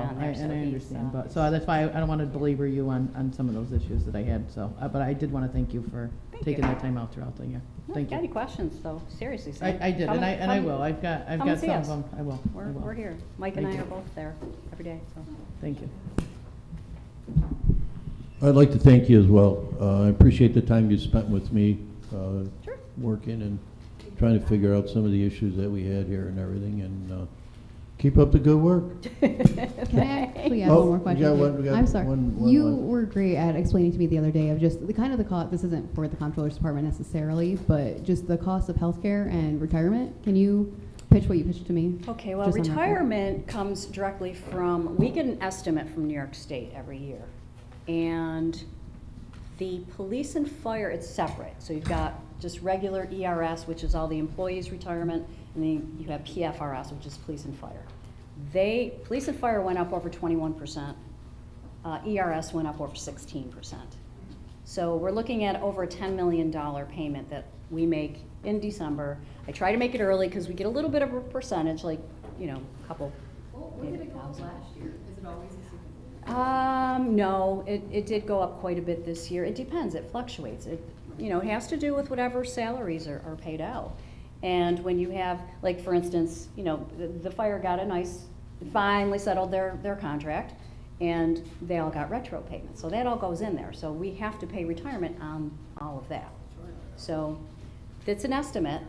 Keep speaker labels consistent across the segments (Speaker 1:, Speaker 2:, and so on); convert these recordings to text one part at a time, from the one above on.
Speaker 1: so
Speaker 2: And Oh, I
Speaker 1: he's, uh,
Speaker 2: understand, but, so that's why I I don't want to belabor you on, on some of those issues that I had, so, uh, but I did want to thank you for
Speaker 1: Thank
Speaker 2: taking
Speaker 1: you.
Speaker 2: that time out throughout the year.
Speaker 1: No,
Speaker 2: Thank
Speaker 1: Got any
Speaker 2: you.
Speaker 1: questions, though? Seriously, Sam.
Speaker 2: I, I did,
Speaker 1: Come
Speaker 2: and I, and I
Speaker 1: come-
Speaker 2: will, I've got, I've
Speaker 1: come and
Speaker 2: got
Speaker 1: see
Speaker 2: some of
Speaker 1: us.
Speaker 2: them, I will, I
Speaker 1: We're,
Speaker 2: will.
Speaker 1: we're here. Mike and I
Speaker 2: Thank
Speaker 1: are
Speaker 2: you.
Speaker 1: both there every day, so.
Speaker 2: Thank you.
Speaker 3: I'd like to thank you as well. Uh, I appreciate the time you spent with me, uh,
Speaker 1: Sure.
Speaker 3: working and trying to figure out some of the issues that we had here and everything, and uh, keep up the good work.
Speaker 4: Can I actually ask
Speaker 3: Oh,
Speaker 4: one more
Speaker 3: we
Speaker 4: question?
Speaker 3: got one- we got
Speaker 4: I'm sorry.
Speaker 3: one- one
Speaker 4: you
Speaker 3: left.
Speaker 4: were great at explaining to me the other day of just the kind of the cost. This isn't for the comptroller's department necessarily, but just the cost of healthcare and retirement. Can you pitch what you pitched to me?
Speaker 1: Okay, well,
Speaker 4: Just on that point.
Speaker 1: retirement comes directly from, we get an estimate from New York State every year. And the police and fire, it's separate. So you've got just regular ERS, which is all the employees' retirement, and then you have PFRS, which is police and fire. They, police and fire went up over twenty-one percent. Uh, ERS went up over sixteen percent. So we're looking at over a $10 million payment that we make in December. I try to make it early because we get a little bit of a percentage, like, you know, a couple. we did it go up
Speaker 4: last year? Is it always a
Speaker 1: Um, no, it, it did go up quite a bit this year. It depends, it fluctuates. It, you know, it has to do with whatever salaries are, are paid out. And when you have, like, for instance, you know, the, the fire got a nice, finally settled their, their contract, and they all got retro payments. So that all goes in there. So we have to pay retirement on all of that. So it's an estimate,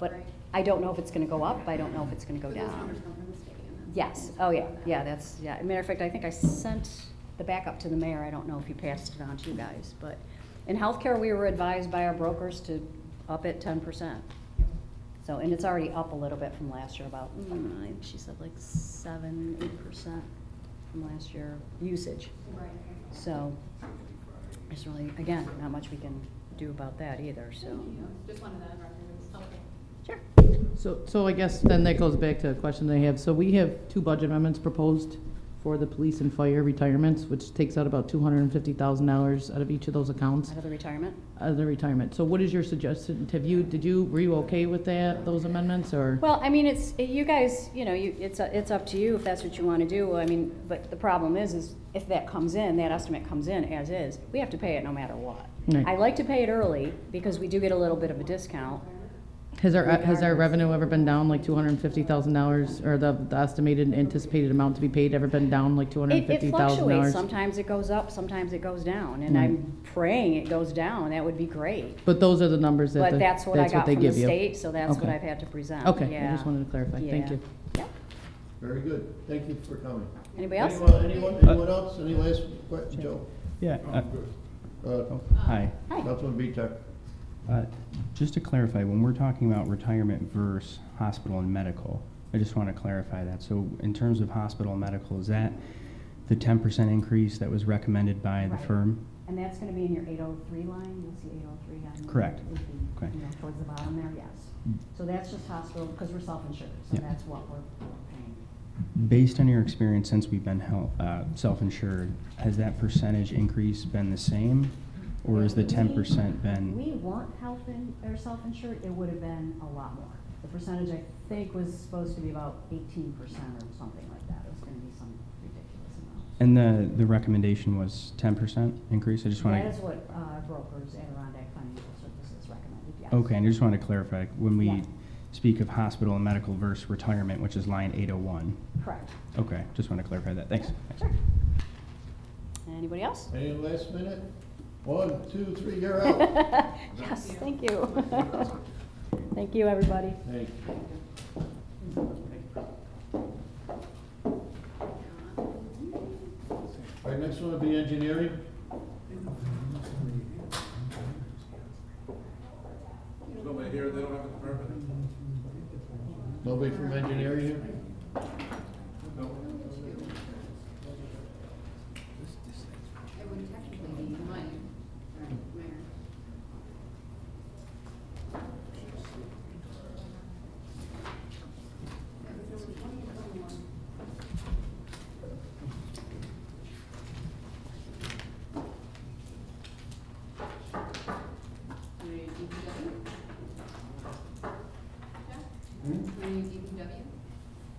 Speaker 1: but I don't know if it's gonna go up, I don't know if it's gonna go down. Yes, oh yeah, yeah, that's, yeah, As a matter of fact, I think I sent the backup to the mayor, I don't know if he passed it on to you guys, but in healthcare, we were advised by our brokers to up it ten percent. So, and it's already up a little bit from last year, about, mm, I- she said like seven, eight percent from last year, usage. So, it's really, again, not much we can do about that either, so.
Speaker 4: Just wanted that
Speaker 1: Sure.
Speaker 2: So, so I guess then that goes back to a question that I have. So we have two budget amendments proposed for the police and fire retirements, which takes out about two hundred and fifty thousand dollars out of each of those accounts,
Speaker 1: Out of the retirement?
Speaker 2: out of the retirement. So what is your suggestion? Have you, did you, were you okay with that, those amendments, or?
Speaker 1: Well, I mean, it's, you guys, you know, you, it's, it's up to you if that's what you want to do. I mean, but the problem is, is if that comes in, that estimate comes in as is, we have to pay it no matter what.
Speaker 2: Right.
Speaker 1: I like to pay it early because we do get a little bit of a discount.
Speaker 2: Has our, has our revenue ever been down like two hundred and fifty thousand dollars, or the the estimated anticipated amount to be paid ever been down like two hundred and
Speaker 1: It it
Speaker 2: fifty thousand
Speaker 1: fluctuates.
Speaker 2: dollars?
Speaker 1: Sometimes it goes up, sometimes it goes down. And
Speaker 2: Mm.
Speaker 1: I'm praying it goes down. That would be great.
Speaker 2: But those are the numbers that,
Speaker 1: But
Speaker 2: the- that's
Speaker 1: that's what I got
Speaker 2: what they
Speaker 1: from the
Speaker 2: give you.
Speaker 1: state, so that's what
Speaker 2: Okay.
Speaker 1: I've had to present.
Speaker 2: Okay, I
Speaker 1: Yeah.
Speaker 2: just wanted to clarify. Thank
Speaker 1: Yeah.
Speaker 2: you.
Speaker 1: Yep.
Speaker 3: Very good. Thank you for coming.
Speaker 1: Anybody else?
Speaker 3: Anyone, anyone, anyone else? Any last question, Joe?
Speaker 5: Yeah, uh,
Speaker 3: Uh,
Speaker 5: oh, hi.
Speaker 1: Hi.
Speaker 3: Councilman Bitar.
Speaker 5: Uh, Just to clarify, when we're talking about retirement versus hospital and medical, I just want to clarify that. So in terms of hospital and medical, is that the ten percent increase that was recommended by the
Speaker 1: Right.
Speaker 5: firm?
Speaker 1: And that's gonna be in your eight oh three line, you'll see eight oh three on. the-
Speaker 5: Correct.
Speaker 1: would be,
Speaker 5: Okay.
Speaker 1: You know, towards the bottom there, yes. So that's just hospital, because we're self-insured, so
Speaker 5: Yeah.
Speaker 1: that's what we're paying.
Speaker 5: Based on your experience since we've been hel- uh, self-insured, has that percentage increase been the same? Or has the
Speaker 1: If we-
Speaker 5: ten percent
Speaker 1: We
Speaker 5: been?
Speaker 1: weren't health in, or self-insured, it would have been a lot more. The percentage, I think, was supposed to be about eighteen percent or something like that, it was gonna be some ridiculous amount.
Speaker 5: And the, the recommendation was ten percent increase? I just want to.
Speaker 1: That is what, uh, brokers, Adirondack Financial Services recommended, yes.
Speaker 5: Okay, and I just wanted to clarify, when
Speaker 1: Yeah.
Speaker 5: we speak of hospital and medical versus retirement, which is line 801.
Speaker 1: Correct.
Speaker 5: Okay, just want to clarify that, thanks.
Speaker 1: Sure. Anybody else?
Speaker 3: Any last minute? One, two, three, you're out.
Speaker 1: Yes, thank you. Thank you, everybody.
Speaker 3: Thank you. All right, next one will be engineering.
Speaker 6: Nobody here, they don't have a permit.
Speaker 3: Nobody from engineering here?
Speaker 4: It would technically be mine, right, Mayor?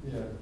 Speaker 3: Yeah.